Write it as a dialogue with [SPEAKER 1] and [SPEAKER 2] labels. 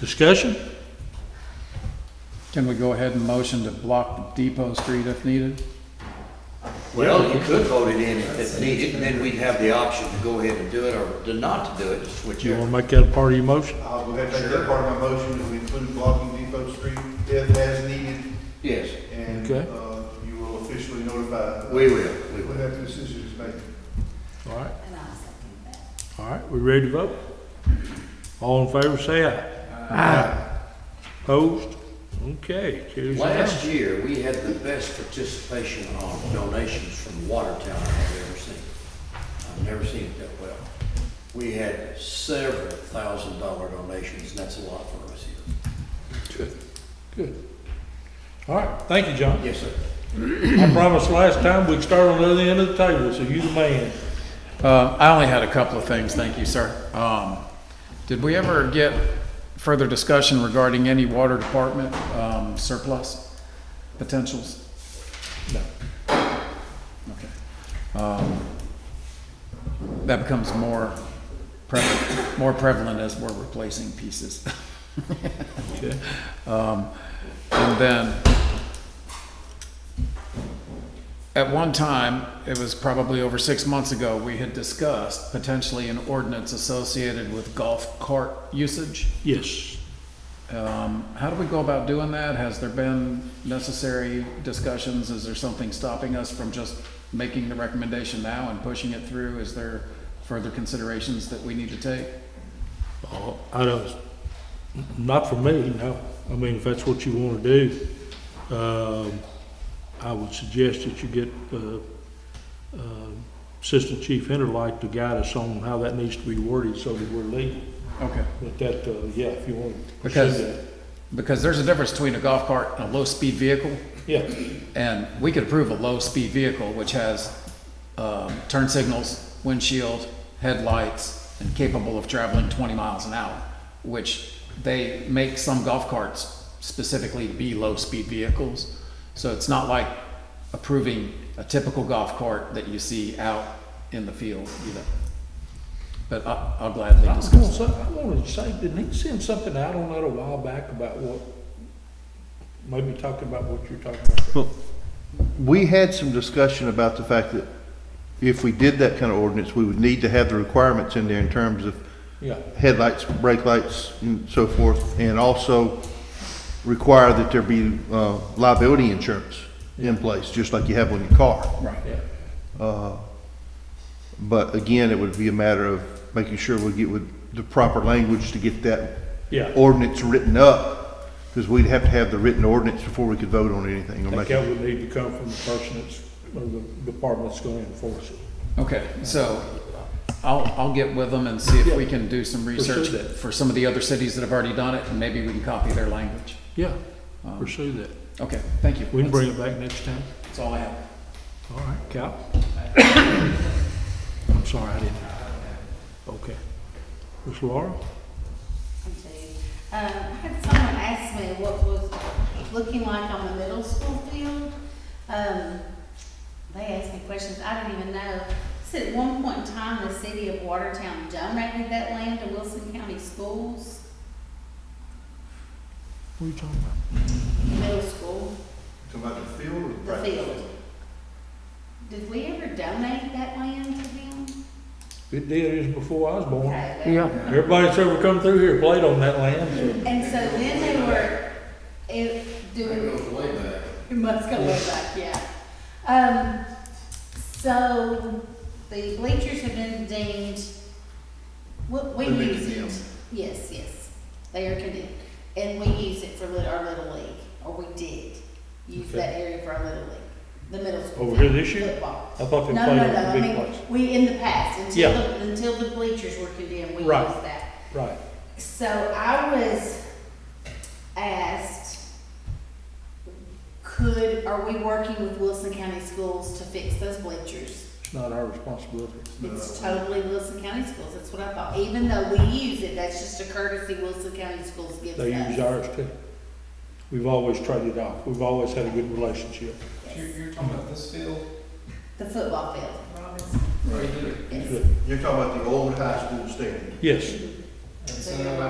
[SPEAKER 1] Discussion?
[SPEAKER 2] Can we go ahead and motion to block Depot Street if needed?
[SPEAKER 3] Well, you could vote it in if it's needed, and then we'd have the option to go ahead and do it or to not to do it, to switch
[SPEAKER 1] You want
[SPEAKER 3] over.
[SPEAKER 1] to make that a part of your motion?
[SPEAKER 4] I'll go ahead and make that part of my motion, that we include blocking Depot Street if as needed,
[SPEAKER 3] Yes,
[SPEAKER 4] and
[SPEAKER 1] Okay.
[SPEAKER 4] uh, you will officially notify.
[SPEAKER 3] we will, we
[SPEAKER 4] When
[SPEAKER 3] will.
[SPEAKER 4] that decision is made.
[SPEAKER 1] All right,
[SPEAKER 5] And I'll second that.
[SPEAKER 1] all right, we ready to vote? All in favor, say aye. Opposed? Okay, carries unanimous.
[SPEAKER 3] Last year, we had the best participation on donations from Watertown I've ever seen. I've never seen it that well. We had several thousand dollar donations, and that's a lot for us here.
[SPEAKER 1] Good. All right, thank you, John.
[SPEAKER 3] Yes, sir.
[SPEAKER 1] I promised last time we'd start on the other end of the table, so you the man.
[SPEAKER 2] Uh, I only had a couple of things, thank you, sir. Um, did we ever get further discussion regarding any water department, um, surplus potentials? No. Okay. Um, that becomes more prevalent, more prevalent as we're replacing pieces.
[SPEAKER 1] Okay.
[SPEAKER 2] Um, and then, at one time, it was probably over six months ago, we had discussed potentially an ordinance associated with golf cart usage.
[SPEAKER 1] Yes.
[SPEAKER 2] Um, how do we go about doing that? Has there been necessary discussions? Is there something stopping us from just making the recommendation now and pushing it through? Is there further considerations that we need to take?
[SPEAKER 1] Oh, I don't, not for me, no. I mean, if that's what you want to do, um, I would suggest that you get, uh, um, Assistant Chief Interlight to guide us on how that needs to be worded so that we're legal.
[SPEAKER 2] Okay.
[SPEAKER 1] But that, uh, yeah, if you want to pursue
[SPEAKER 2] Because-
[SPEAKER 1] that.
[SPEAKER 2] Because there's a difference between a golf cart and a low-speed vehicle.
[SPEAKER 1] Yeah,
[SPEAKER 2] And we could approve a low-speed vehicle which has um, turn signals, windshield, headlights, and capable of traveling 20 miles an hour, which they make some golf carts specifically to be low-speed vehicles. So it's not like approving a typical golf cart that you see out in the field either. But I- I'll gladly
[SPEAKER 1] I was gonna
[SPEAKER 2] discuss
[SPEAKER 1] say,
[SPEAKER 2] it.
[SPEAKER 1] I wanted to say, didn't he send something out on that a while back about what, maybe talking about what you're talking about?
[SPEAKER 6] Well, we had some discussion about the fact that if we did that kind of ordinance, we would need to have the requirements in there in terms of
[SPEAKER 1] Yeah,
[SPEAKER 6] headlights, brake lights, and so forth, and also require that there be uh, liability insurance in place, just like you have on your car.
[SPEAKER 2] Right.
[SPEAKER 1] yeah.
[SPEAKER 6] But again, it would be a matter of making sure we get with the proper language to get that
[SPEAKER 1] Yeah.
[SPEAKER 6] ordinance written up, because we'd have to have the written ordinance before we could vote on anything. or
[SPEAKER 1] I think
[SPEAKER 6] make a-
[SPEAKER 1] that would need to come from the person that's, or the department that's gonna enforce it.
[SPEAKER 2] Okay, so I'll, I'll get with them and see if we
[SPEAKER 1] Yeah.
[SPEAKER 2] can do some
[SPEAKER 1] Pursue
[SPEAKER 2] research
[SPEAKER 1] that.
[SPEAKER 2] for some of the other cities that have already done it, and maybe we can copy their language. Um,
[SPEAKER 1] Yeah, pursue that.
[SPEAKER 2] Okay, thank you.
[SPEAKER 1] We can
[SPEAKER 2] That's-
[SPEAKER 1] bring it back next time.
[SPEAKER 2] That's all I have.
[SPEAKER 1] All right, Cal? I'm sorry, I didn't. Okay. Miss Laura?
[SPEAKER 5] Okay. Um, I had someone ask me what was looking like on the middle school field. Um, they asked me questions, I didn't even know. Said at one point in time, the city of Watertown donated that land to Wilson County Schools,
[SPEAKER 1] What are you talking about?
[SPEAKER 5] middle school,
[SPEAKER 4] Talking about the field or the
[SPEAKER 5] the
[SPEAKER 4] practice?
[SPEAKER 5] field. Did we ever donate that land to them?
[SPEAKER 1] It did, it was before I was born.
[SPEAKER 5] Okay,
[SPEAKER 2] Yeah.
[SPEAKER 1] Everybody that's ever come through here played on that land.
[SPEAKER 5] And so then they were, if,
[SPEAKER 3] That
[SPEAKER 5] doing.
[SPEAKER 3] goes way back.
[SPEAKER 5] It must go way back, yeah. Um, so the bleachers have been deemed, what, we
[SPEAKER 4] They've been
[SPEAKER 5] use
[SPEAKER 4] condemned.
[SPEAKER 5] it. Yes, yes, they are condemned. And we use it for lit- our little league, or we did use
[SPEAKER 1] Okay.
[SPEAKER 5] that area for our little league, the middle school.
[SPEAKER 1] Over here
[SPEAKER 5] team,
[SPEAKER 1] this year?
[SPEAKER 5] Football.
[SPEAKER 1] I thought they
[SPEAKER 5] No,
[SPEAKER 1] played
[SPEAKER 5] no,
[SPEAKER 1] on
[SPEAKER 5] no,
[SPEAKER 1] the
[SPEAKER 5] I
[SPEAKER 1] big
[SPEAKER 5] mean,
[SPEAKER 1] place.
[SPEAKER 5] we, in the past, until,
[SPEAKER 1] Yeah.
[SPEAKER 5] the- until the bleachers were condemned, we used
[SPEAKER 1] Right.
[SPEAKER 5] that.
[SPEAKER 1] Right.
[SPEAKER 5] So I was asked, could, are we working with Wilson County Schools to fix those bleachers?
[SPEAKER 1] It's not our responsibility.
[SPEAKER 5] It's totally Wilson County Schools, that's what I thought, even though we use it, that's just a courtesy Wilson County Schools gives us.
[SPEAKER 1] They use ours too. We've always traded off. We've always had a good relationship.
[SPEAKER 7] You're, you're talking about this field?
[SPEAKER 5] The football field,
[SPEAKER 7] Right here.
[SPEAKER 5] yes.
[SPEAKER 4] You're talking about the old high school stadium.
[SPEAKER 1] Yes.
[SPEAKER 7] And so